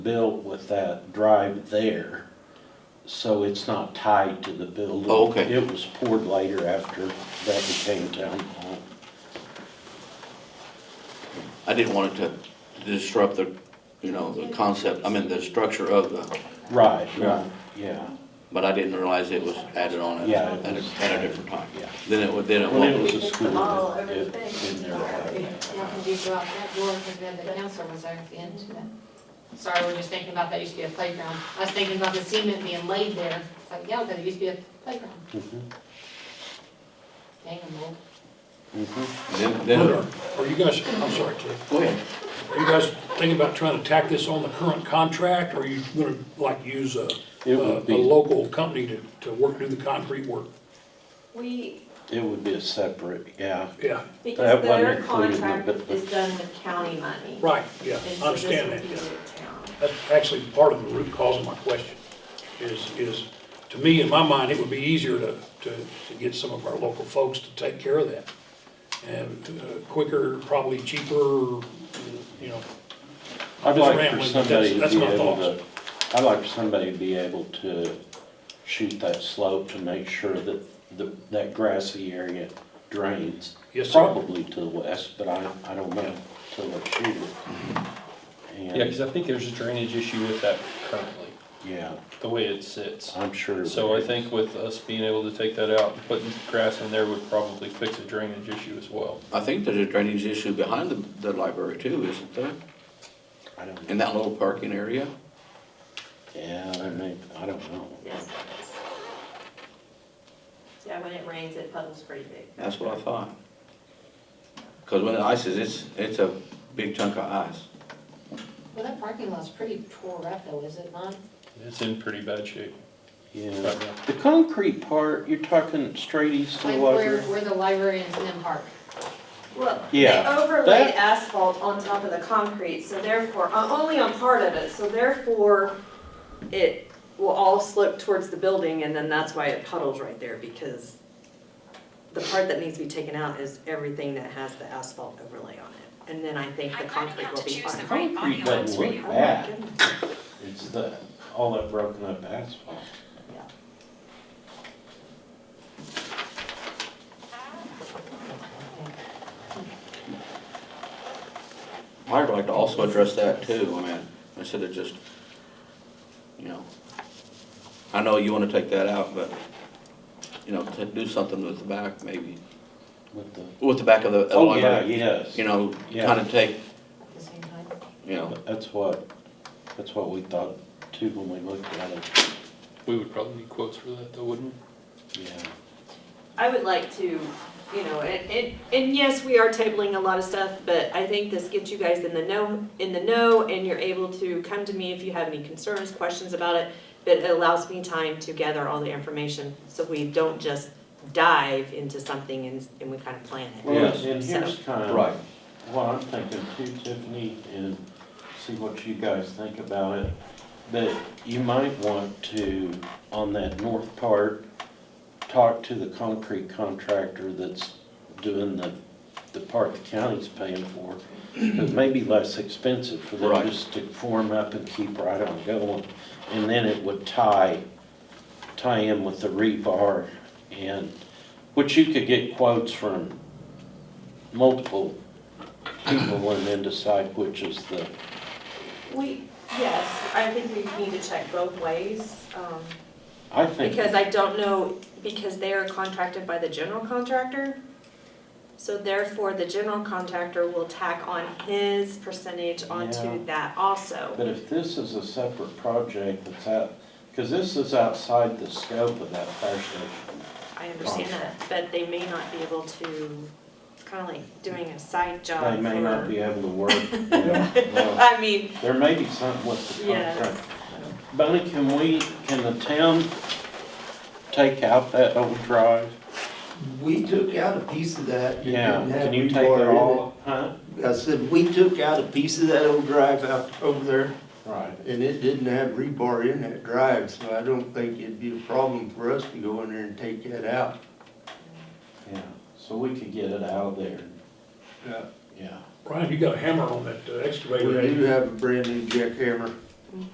built with that drive there, so it's not tied to the building. Oh, okay. It was poured later after that became town hall. I didn't want it to disrupt the, you know, the concept, I mean, the structure of the, Right, right, yeah. but I didn't realize it was added on at, Yeah, it at was- a, at a different time. yeah. Then it would, then it When it was won't, a school, Oh, it, it, everything. in there. How can you go out that door and then the council was there at the end? Sorry, we we're just thinking about that used to be a playground. I was thinking about the cement being laid there. It's like, yeah, but it used to be a playground. Mhm, Dang, well, mhm. then, Are then, are you guys, I'm sorry, Cliff, go ahead. are you guys thinking about trying to tack this on the current contract? Or are you gonna like use a, It a would be- a local company to, to work, do the concrete work? We, It would be a separate, yeah. Yeah, because That wasn't their included in the contract bid. is done with county money. right, yeah, And I so this understand would that, be yeah. the town. That's actually part of the root cause of my question, is, is, to me, in my mind, it would be easier to, to, to get some of our local folks to take care of that. And uh, quicker, probably cheaper, you know, I'd Just like for rambling, but somebody to that's- that's be my able to, I'd like for somebody to be able to shoot that slope to make sure that, the- that grassy area drains. Yes, sir. Probably to the west, but I, I don't know till I shoot it. Yeah, because And, I think there's a drainage issue with that currently, yeah, the way it sits. I'm sure. So I think with us being able to take that out, and putting grass in there would probably fix a drainage issue as well. I think there's a drainage issue behind the, the library too, isn't there? I don't, In that little parking area? yeah, I mean, I don't know. Yes. Yeah, when it rains, it puddles pretty big. That's what I thought. Cause when it ices, it's, it's a big chunk of ice. well, that parking lot's pretty tore up though, is it not? It's in pretty bad shape Yeah. right now. The concrete part, you're talking straight east of Like the where, library? where the library is and then park. Well, they Yeah, overlaid that- asphalt on top of the concrete, so therefore, uh, only on part of it, so therefore, it will all slip towards the building, and then that's why it puddles right there, because the part that needs to be taken out is everything that has the asphalt overlay on it, and then I think the I'm learning concrete how will to be choose the right fine. body Concrete lines doesn't for you. look bad. It's the, all that broken up asphalt. I'd like to also address that too, I mean, instead of just, you know, I know you wanna take that out, but, you know, to do something with the back, maybe, With the, with the back of the. oh, yeah, yes. You know, Yeah. kinda take, At the same time, you know, But That's what, that's what we thought too when we looked at it, We would probably need quotes for that though, wouldn't yeah. I would like to, you know, and, and, and yes, we are tabling a lot of stuff, but I think this gets you guys in the know, in the know, and you're able to come to me if you have any concerns, questions about it. But it allows me time to gather all the information, so we don't just dive into something and, and we kind of plan it. Well, Yes. and here's kind of. right, What I'm thinking too, Tiffany, and see what you guys think about it, that you might want to, on that north part, talk to the concrete contractor that's doing the, the part the county's paying for. It may be less expensive for them Right. just to form up and keep right on going. And then it would tie, tie in with the rebar and, which you could get quotes from multiple people and then decide which is the, We, yes, I think we need to check both ways, um, I think. Because I don't know, because they are contracted by the general contractor. So therefore, the general contractor will tack on his percentage Yeah. onto that also. But if this is a separate project that's out, because this is outside the scope of that fire station. I understand that, but they may not be able to, kind of like doing a side job They may not for. be able to work. you know. I mean, There may be something with the yes. contract. Bonnie, can we, can the town take out that old drive? We took out a piece of that. that Yeah, didn't have can you take it rebar in all, huh? it. I said, we took out a piece of that old drive out over there, Right. and it didn't have rebar in that drive, so I don't think it'd be a problem for us to go in there and take that out. Yeah, so we could get it out of there, Uh, yeah. Brian, you got a hammer on that uh, We excavator. ain't you? do have a brand new jackhammer.